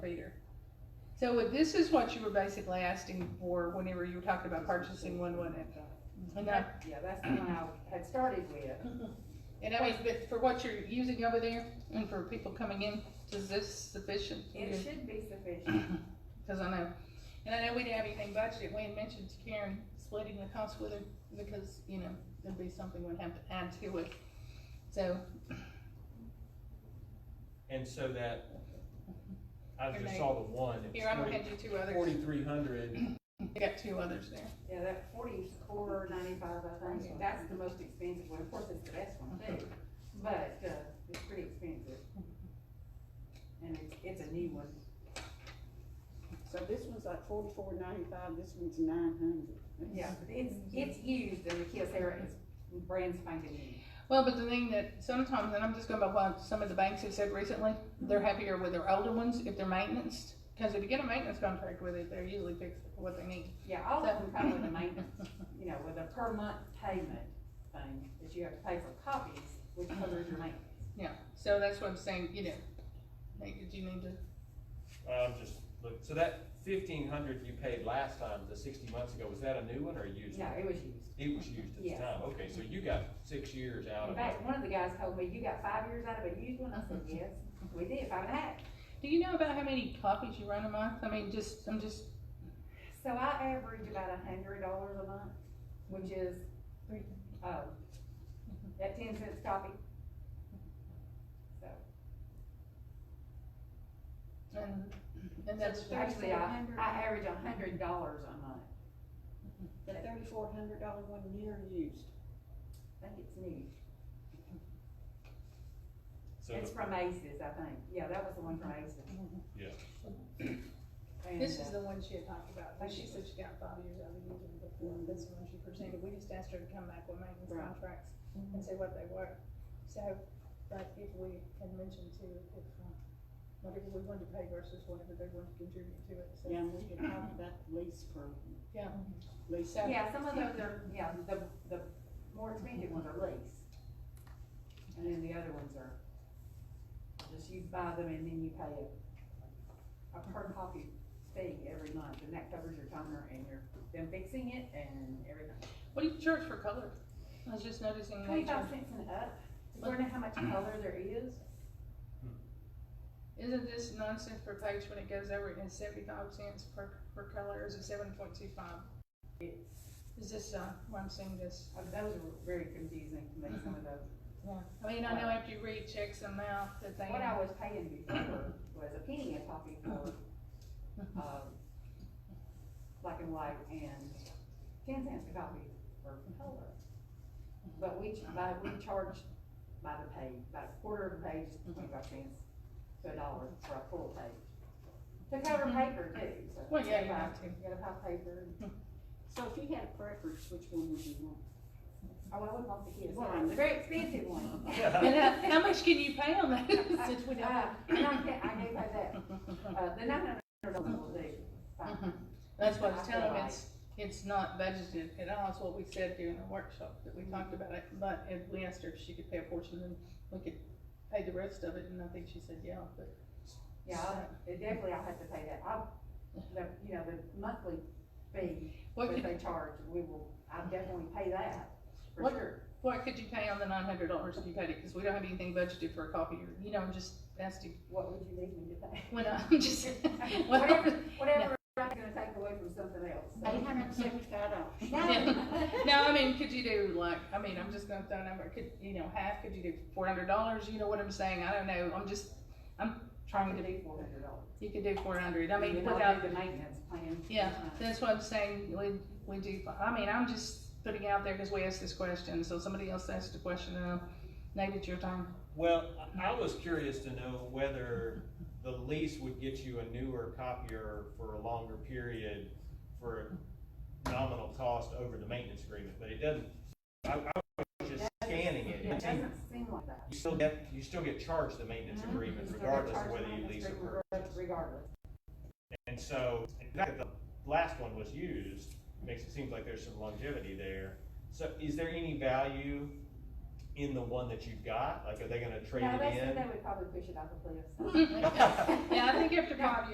So what- this is what you were basically asking for whenever you were talking about purchasing one, wasn't it? Mm-hmm. And I, Yeah, that's the one I had started with. and I mean, but for what you're using over there and for people coming in, is this sufficient? It should be sufficient. Cause I know, and I know we didn't have anything budgeted, we had mentioned to Karen splitting the cost with her, because, you know, there'd be something we'd have to add to it. So, And so that, I Your just name. saw the one, here, I'm gonna it's hand you two others, forty-three hundred, I got two others there. Yeah, that forty-four ninety-five, I think, that's the most expensive one. Of course, it's the best one too, but, uh, it's pretty expensive. And it's, it's a new one. So this one's like forty-four ninety-five, this one's nine hundred. Yeah, but it's, it's used and the Kyocera is brand spanking new. Well, but the thing that sometimes, and I'm just going by what some of the banks have said recently, they're happier with their older ones if they're maintenance. Because if you get a maintenance contract with it, they're usually fix what they need. Yeah, all of them come with a maintenance, you know, with a per month payment thing, that you have to pay for copies, which covers your maintenance. Yeah, so that's what I'm saying, you know, like, do you need to, um, just, look, so that fifteen hundred you paid last time, the sixty months ago, was that a new one or a used No, one? it was used. It was used at the Yeah. time, okay, so you got six years out In of it. fact, one of the guys told me, you got five years out of a used one, I said, yes, we did, five and a half. do you know about how many copies you run a month? I mean, just, I'm just, So I average about a hundred dollars a month, which is, um, that ten cents copy. So, and, and that's, So it's actually, I, 3,400. I average a hundred dollars a month, The thirty-four hundred dollar one near used. I think it's new. So It's the- from Aces, I think, yeah, that was the one from Aces. Yeah. And, This uh, is the one she had talked about, but she said she got five years out of the union before, this is the one she presented, we just asked her to come back with maintenance Right. contracts Mm-hmm. and say what they were. So, but if we had mentioned to, if, uh, whatever we wanted to pay versus whatever they wanted to contribute to it, so. Yeah, and we could talk about the lease program. Yeah. Mm-hmm. Lease. So- Yeah, some of those are, yeah, the, the more expensive ones are lease. And then the other ones are, just you buy them and then you pay a, a per copy fee every month, and that covers your toner and your, them fixing it and everything. what do you charge for color? I was just noticing they Twenty-five charge, cents and up, you wanna know how much color there is? isn't this nonsense per page when it goes over and seventy-five cents per, per color, is it seven point two five? Is this, uh, why I'm saying this? Uh, Those are very confusing to me, some of those. Yeah, I mean, I know after you read checks them out, that they, Mm-hmm. What I was paying before was a penny a copy for, um, black and white and ten cents a copy for color. But we, ch- by, we charge by the page, by a quarter of a page, twenty-five cents to a dollar for a full page. To cover paper too, so. Mm-hmm. Well, yeah, you gotta buy- have to. You gotta buy paper, and- So if you had a preference, which one would you want? oh, I would love to get Well, one, the very expensive one. and uh, how, how much can you pay on that, since we don't? Uh, and I can't, I can't pay that, uh, the nine hundred dollar will do, fine. Mhm. That's what I was I feel telling them, like- it's, it's not budgeted at all, it's what we said during the workshop, that we talked about it, but, and we asked her if she could pay a portion, and we could pay the rest of it, and I think she said, yeah, but. Yeah, I'll- it definitely I'll have to pay that, I'll, the, you know, the monthly fee, What that could, they charge, we will, I'll definitely pay that, for What- sure. what could you pay on the nine hundred dollars if you paid it, cause we don't have anything budgeted for a copy, or, you know, I'm just asking, What would you need me to pay? when I'm just, well, Whatever, whatever I'm gonna take away from something else. so. Eight hundred and seventy-five dollars. No. No, I mean, could you do like, I mean, I'm just gonna throw a number, could, you know, half, could you do four hundred dollars, you know what I'm saying, I don't know, I'm just, I'm Trying trying to to, do four hundred dollars. you could do four hundred, I mean, And I'll without, do The maintenance plan. yeah, that's what I'm saying, we, we do, I mean, I'm just putting out there, cause we asked this question, so somebody else asked the question, and I'll, Nate, it's your time. Well, I I was curious to know whether the lease would get you a newer copier for a longer period for a nominal cost over the maintenance agreement, but it doesn't. I, I was just scanning it. It It seemed- doesn't seem like that. You still get, you still get charged the maintenance Mm-hmm. agreement So they regardless of charge whether you maintenance lease or fee purchase. Regardless, And so, in fact, the last one was used, makes it seem like there's some longevity there. So is there any value in the one that you've got? Like, are they gonna trade no, it they said in? they would probably push it off a cliff, so. Yeah, I think after five years.